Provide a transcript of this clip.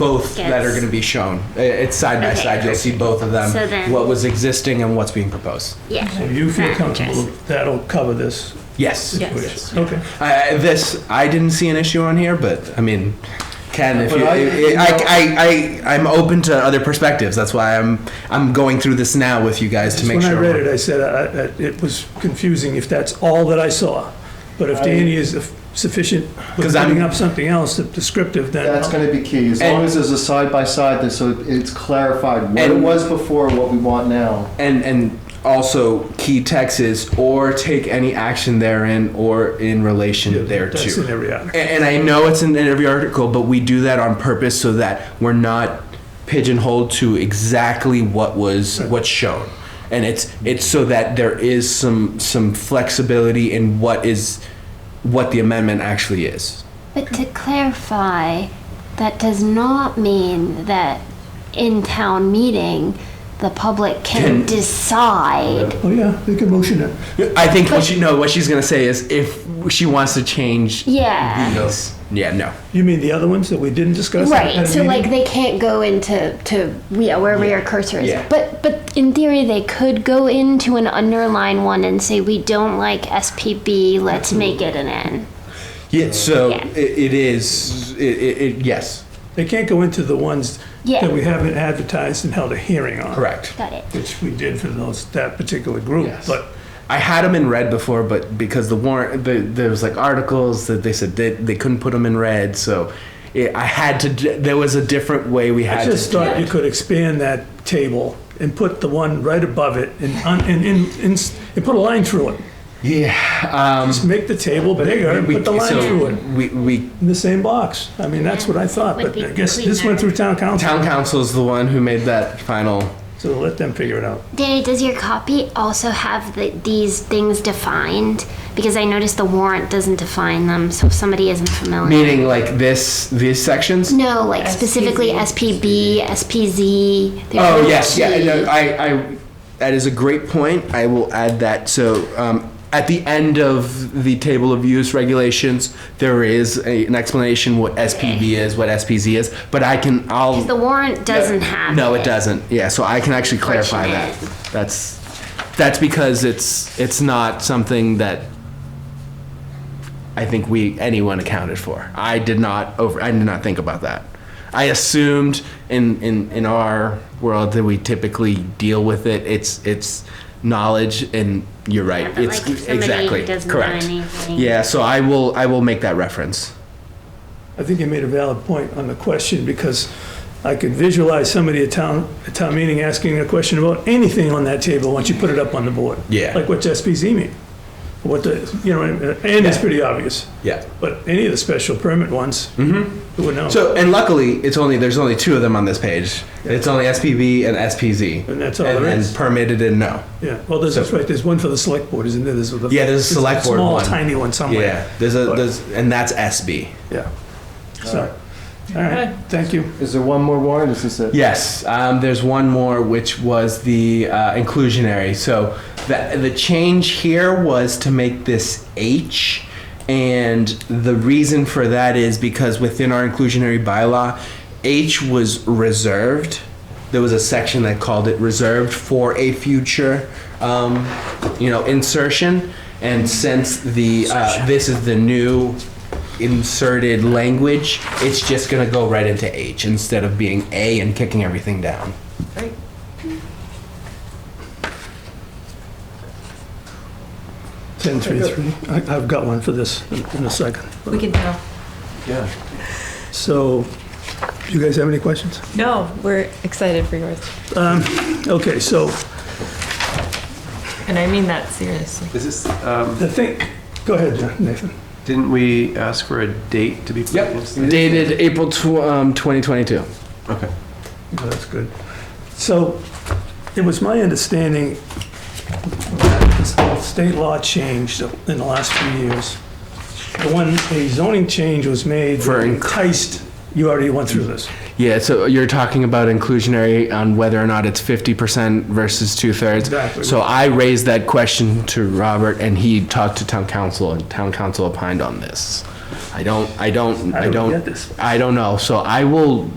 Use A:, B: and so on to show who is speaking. A: both that are
B: Gets-
A: going to be shown. I- It's side by
B: Okay.
A: side. You'll see both of them.
B: So then-
A: what was existing and what's being proposed.
B: Yeah.
C: So you feel
B: Not
C: comfortable that'll cover this?
A: Yes.
D: Yes.
C: which- Okay.
A: I, I- this I didn't see an issue on here, but I mean, Ken, if
C: But
A: you, I,
C: I-
A: I, I, I, am open to other perspectives. That's why I'm I'm going through this now with you guys to make
C: When I
A: sure.
C: read it, I said I- I- it was confusing if that's all that I saw. But if Danny is sufficient with
A: 'Cause I'm-
C: putting up something else that's descriptive, then
E: That's
C: I'll-
E: going to be key, as
A: And-
E: long as there's a side by side, that so it's clarified what it
A: And-
E: was before, what we want now.
A: and and also key text is or take any action therein or in relation therereto.
C: that's in every article.
A: And, and I know it's in every article, but we do that on purpose so that we're not pigeonholed to exactly what was what's shown. And it's it's so that there is some some flexibility in what is what the amendment actually is.
B: But to clarify, that does not mean that in town meeting, the public can
A: Can-
B: decide.
C: Oh, yeah, they can motion it.
A: I think what she no what she's gonna say is if she wants to change
B: Yeah.
A: these. Yeah, no.
C: You mean the other ones that we didn't discuss? at- at
B: Right.
C: a
B: So like
C: meeting?
B: they can't go into to yeah, wherever your cursor is.
A: Yeah.
B: But but in theory they could go into an underline one and say we don't like SPB, let's make it an N.
A: Yeah, so
B: Yeah.
A: It, it is it, it, it yes.
C: They can't go into the ones
B: Yeah.
C: that we haven't advertised and held a hearing on.
A: Correct.
B: Got it.
C: Which we did for those, that particular group,
A: Yes.
C: but
A: I had them in red before, but because the warrant, the, there was like articles that they said they, they couldn't put them in red, so it, I had to. d- There was a different way we
C: I
A: had to.
C: just
A: do
C: thought you
A: it.
C: could expand that table and put the one right above it and, un- and, and, and, and put a line through it.
A: Yeah. Um,
C: Just make the table bigger and put the line
A: so
C: through it
A: We, we
C: in the same box. I mean, that's what I thought,
B: Would
C: but
B: be
C: I guess this went through town council,
A: town council's the one who made that final.
C: so let them figure it out.
B: Danny, does your copy also have the, these things defined? Because I noticed the warrant doesn't define them, so if somebody isn't familiar.
A: Meaning like this, these sections.
B: No, like specifically SPB, SPZ. there's
A: Oh
B: no
A: yes, yeah.
B: P. E.
A: No, I, I, that is a great point. I will add that. So um, at the end of the table of use regulations, there is a, an explanation what SPB is, what SPZ is. But I can, I'll.
B: The warrant doesn't have.
A: uh, No, it doesn't. Yeah, so I can actually clarify that. That's that's because it's it's not something that I think we anyone accounted for. I did not over I did not think about that. I assumed in in in our world that we typically deal with it. It's it's knowledge and you're right.
B: Yeah, but
A: it's
B: like if somebody
A: exactly
B: doesn't know
A: correct.
B: anything-
A: Yeah, so I will I will make that reference.
C: I think you made a valid point on the question because I could visualize somebody at town, at town meeting asking a question about anything on that table once you put it up on the board.
A: Yeah.
C: Like what's SPZ mean? What the, you know, and it's pretty obvious.
A: Yeah.
C: But any of the special permit ones, who would know?
A: Mm-hmm. So and luckily, it's only there's only two of them on this page. It's only SPB and SPZ,
C: And that's all
A: and,
C: there
A: and
C: is.
A: permitted and no.
C: Yeah, well, there's, that's right, there's one for the select board, isn't there? There's the.
A: Yeah, there's a select board
C: Small,
A: one.
C: tiny one somewhere.
A: Yeah, there's a
C: But-
A: there's and that's SB.
C: Yeah. So, all right, thank you.
E: Is there one more warrant, is this it?
A: Yes, um, there's one more, which was the uh, inclusionary. So the, the change here was to make this H. And the reason for that is because within our inclusionary bylaw, H was reserved. There was a section that called it reserved for a future, um, you know, insertion. And since the uh, this is the new inserted language, it's just gonna go right into H instead of being A and kicking everything down.
C: Ten three three. I- I've got one for this in in a second.
D: We can tell.
E: Yeah.
C: So, do you guys have any questions?
D: No, we're excited for yours.
C: Okay, so
D: And I mean that seriously.
F: Is this, um,
C: the thing, go ahead, Nathan.
F: didn't we ask for a date to be put against this?
A: Dated April tw- um, 2022.
F: Okay.
C: No, Oh, That's good. So it was my understanding that this whole state law changed in the last few years. The one, a zoning change was made
A: For
C: that
A: inc-
C: enticed, you already went through this.
A: Yeah, so you're talking about inclusionary on whether or not it's 50% versus two thirds.
C: Exactly.
A: So I raised that question to Robert and he talked to town council and town council opined on this. I don't, I don't,
C: How
A: I
C: do we
A: don't.
C: get this?
A: I don't know. So I will